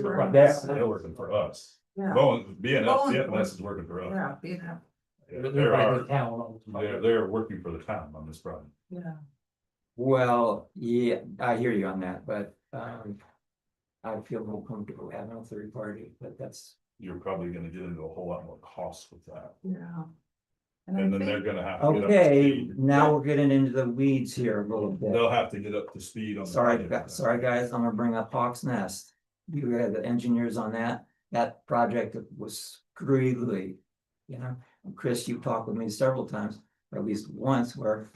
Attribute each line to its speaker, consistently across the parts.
Speaker 1: Right, that's, they're working for us.
Speaker 2: Yeah,
Speaker 1: Bowen, BNS,
Speaker 2: Bowen-
Speaker 1: BNS is working for us.
Speaker 2: yeah, you know,
Speaker 1: Yeah, There are,
Speaker 3: town.
Speaker 1: they're, they're working for the town on this project.
Speaker 2: yeah.
Speaker 3: Well, yeah, I hear you on that, but, um. I feel more comfortable having a third party, but that's,
Speaker 1: You're probably gonna get into a whole lot more costs with that.
Speaker 2: Yeah.
Speaker 1: And
Speaker 2: I
Speaker 1: then they're
Speaker 2: think-
Speaker 1: gonna have. to get up to
Speaker 3: okay,
Speaker 1: speed.
Speaker 3: now we're getting into the weeds here a little bit.
Speaker 1: They'll have to get up to speed on. the
Speaker 3: Sorry,
Speaker 1: project.
Speaker 3: gu- sorry, guys, I'm gonna bring up Hawks Nest. You had the engineers on that, that project was screwy. You know, Chris, you've talked with me several times, or at least once, where.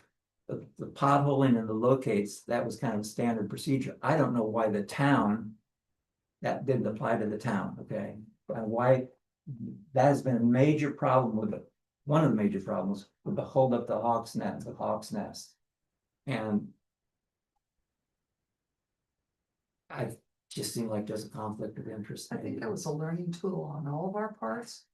Speaker 3: The, the potholing and the locates, that was kind of standard procedure. I don't know why the town. That didn't apply to the town, okay? And why? That has been a major problem with it. One of the major problems with the hold up the Hawks Nest, the Hawks Nest. And. I just seem like there's a conflict of interest.
Speaker 2: I think
Speaker 3: maybe.
Speaker 2: that was a learning tool on all of our parts.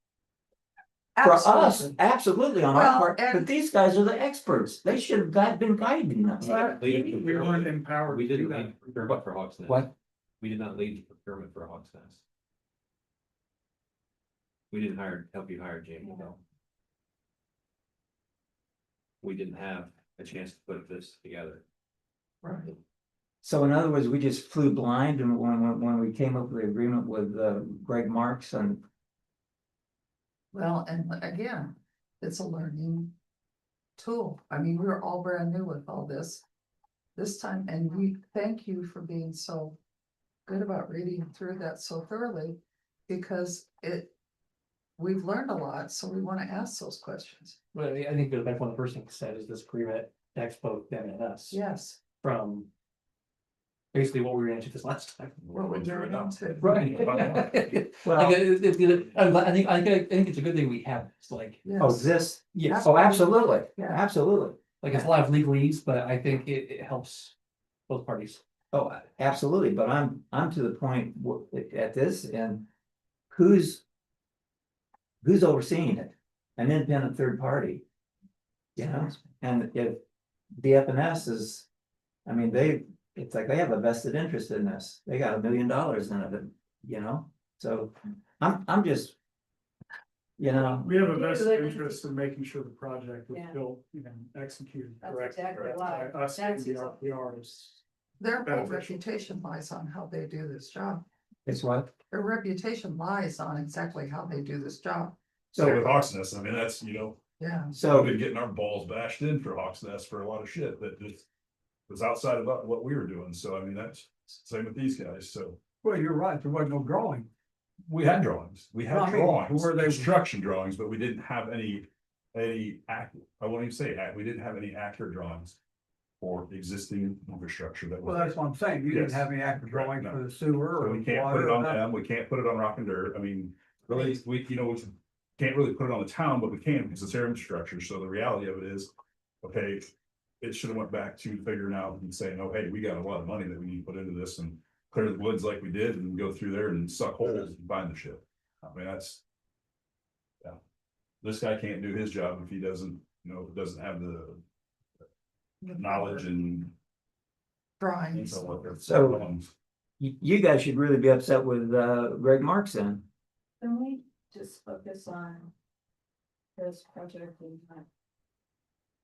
Speaker 3: For us,
Speaker 2: Absolutely.
Speaker 3: absolutely on
Speaker 2: Well,
Speaker 3: our part, but
Speaker 2: and-
Speaker 3: these guys are the experts. They should have got- been guiding us.
Speaker 2: But-
Speaker 4: We weren't
Speaker 5: empowered.
Speaker 4: We didn't lead procurement for Hawks Nest.
Speaker 3: What?
Speaker 4: We did not lead procurement for Hawks Nest. We didn't hire, help you hire Jamie Bell. We didn't have a chance to put this together.
Speaker 2: Right.
Speaker 3: So in other words, we just flew blind and when, when, when we came up with the agreement with uh, Greg Marks and,
Speaker 2: Well, and again, it's a learning tool. I mean, we were all brand new with all this. This time, and we thank you for being so good about reading through that so thoroughly, because it. We've learned a lot, so we wanna ask those questions.
Speaker 5: But I mean, I think that that's one of the first things said is this agreement affects both them and us
Speaker 2: Yes,
Speaker 5: from. Basically what we ran into this last time.
Speaker 2: what we're
Speaker 1: doing
Speaker 2: doing
Speaker 1: now.
Speaker 2: too.
Speaker 5: Right. I
Speaker 3: well,
Speaker 5: think, it's- it's- I'm glad- I think, I think, I think it's a good thing we have, it's like,
Speaker 3: oh,
Speaker 2: Yes,
Speaker 3: this,
Speaker 5: yes,
Speaker 3: oh, absolutely,
Speaker 2: Yeah.
Speaker 3: absolutely.
Speaker 5: like it's a lot of legalese, but I think it, it helps both parties.
Speaker 3: Oh, a- absolutely, but I'm, I'm to the point w- at this and who's. Who's overseeing it? An independent third party. You know, and if the F and S is, I mean, they, it's like they have a vested interest in this. They got a million dollars in it, you know, so I'm, I'm just. You know,
Speaker 6: We have a
Speaker 7: Yeah,
Speaker 6: vested
Speaker 7: like-
Speaker 6: interest in making sure the project was
Speaker 7: Yeah.
Speaker 6: built and executed
Speaker 7: That's
Speaker 6: correctly.
Speaker 7: exactly
Speaker 6: by
Speaker 7: why.
Speaker 6: Us and
Speaker 7: That's
Speaker 6: the
Speaker 7: exactly-
Speaker 6: RPRs.
Speaker 2: their whole
Speaker 6: Beneficial.
Speaker 2: reputation lies on how they do this job.
Speaker 3: it's what,
Speaker 2: Their reputation lies on exactly how they do this job,
Speaker 1: So with
Speaker 3: so,
Speaker 1: Hawks Nest, I mean, that's, you know,
Speaker 2: yeah.
Speaker 1: we've
Speaker 3: so,
Speaker 1: been getting our balls bashed in for Hawks Nest for a lot of shit that just. Was outside of what we were doing, so I mean, that's same with these guys, so.
Speaker 6: Well, you're right, there wasn't no drawing.
Speaker 1: We had drawings, we
Speaker 6: No,
Speaker 1: had
Speaker 6: I mean,
Speaker 1: drawings,
Speaker 6: were they-
Speaker 1: construction drawings, but we didn't have any, any act, I won't even say act, we didn't have any accurate drawings. For existing infrastructure that
Speaker 6: Well,
Speaker 1: was,
Speaker 6: that's what I'm saying, you
Speaker 1: Yes.
Speaker 6: didn't have any active
Speaker 1: Correct,
Speaker 6: drawing
Speaker 1: no.
Speaker 6: for the sewer
Speaker 1: so
Speaker 6: or
Speaker 1: we can't put
Speaker 6: water
Speaker 1: it
Speaker 6: or
Speaker 1: on
Speaker 6: nothing.
Speaker 1: them, we can't put it on rock and dirt, I mean. Really, we, you know, we can't really put it on the town, but we can because it's their infrastructure, so the reality of it is, okay. It should have went back to figuring out and saying, oh, hey, we got a lot of money that we need to put into this and clear the woods like we did and go through there and suck holes and find the shit. I mean, that's. Yeah. This guy can't do his job if he doesn't, you know, doesn't have the knowledge and.
Speaker 2: Drawings.
Speaker 1: intel um, of it.
Speaker 3: So- you, you guys should really be upset with, uh, Greg Marks then.
Speaker 7: Can we just focus on this project we want?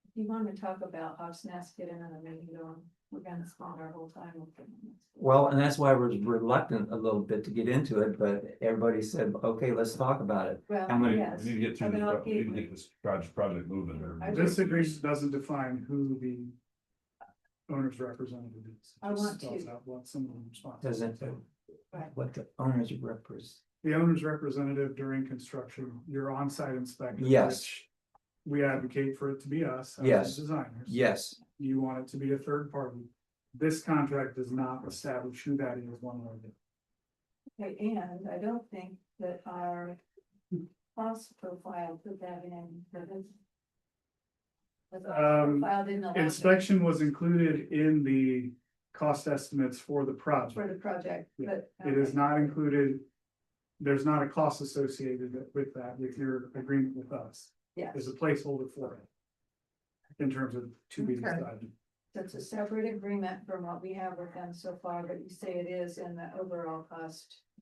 Speaker 7: If you want to talk about Hawks Nest, get another meeting going, um, we're gonna spend our whole time with them.
Speaker 3: Well, and that's why we're reluctant a little bit to get into it, but everybody said, okay, let's talk about it. I'm
Speaker 7: Well,
Speaker 3: gonna-
Speaker 1: We
Speaker 7: yes.
Speaker 1: we need to get through, this-
Speaker 7: about
Speaker 1: we need to
Speaker 7: gateway.
Speaker 1: get this project, project moving or.
Speaker 7: I
Speaker 6: This
Speaker 7: would-
Speaker 6: agreement doesn't define who the owner's representative is. It
Speaker 7: I
Speaker 6: just
Speaker 7: want
Speaker 6: spells
Speaker 7: to-
Speaker 6: out What someone's responsible.
Speaker 3: Doesn't
Speaker 7: Right.
Speaker 3: what the owners represent.
Speaker 6: The owner's representative during construction, your on-site inspector.
Speaker 3: Yes.
Speaker 6: which We advocate for it to be us. as
Speaker 3: Yes.
Speaker 6: Designers.
Speaker 3: Yes,
Speaker 6: you want it to be a third party. This contract does not establish who that is one way or the other.
Speaker 7: Okay, And I don't think that our cost profile put that in, that is. that's not
Speaker 6: Um,
Speaker 7: Profiled in the. last-
Speaker 6: Inspection was included in the cost estimates for the
Speaker 7: For
Speaker 6: project.
Speaker 7: the project,
Speaker 6: Yeah,
Speaker 7: but. um,
Speaker 6: It is not included. There's not a cost associated with that, with your agreement with us.
Speaker 7: Yes.
Speaker 6: There's a placeholder for it. In terms of to be
Speaker 2: Okay.
Speaker 6: decided.
Speaker 7: That's a separate agreement from what we have with them so far, but you say it is in the overall cost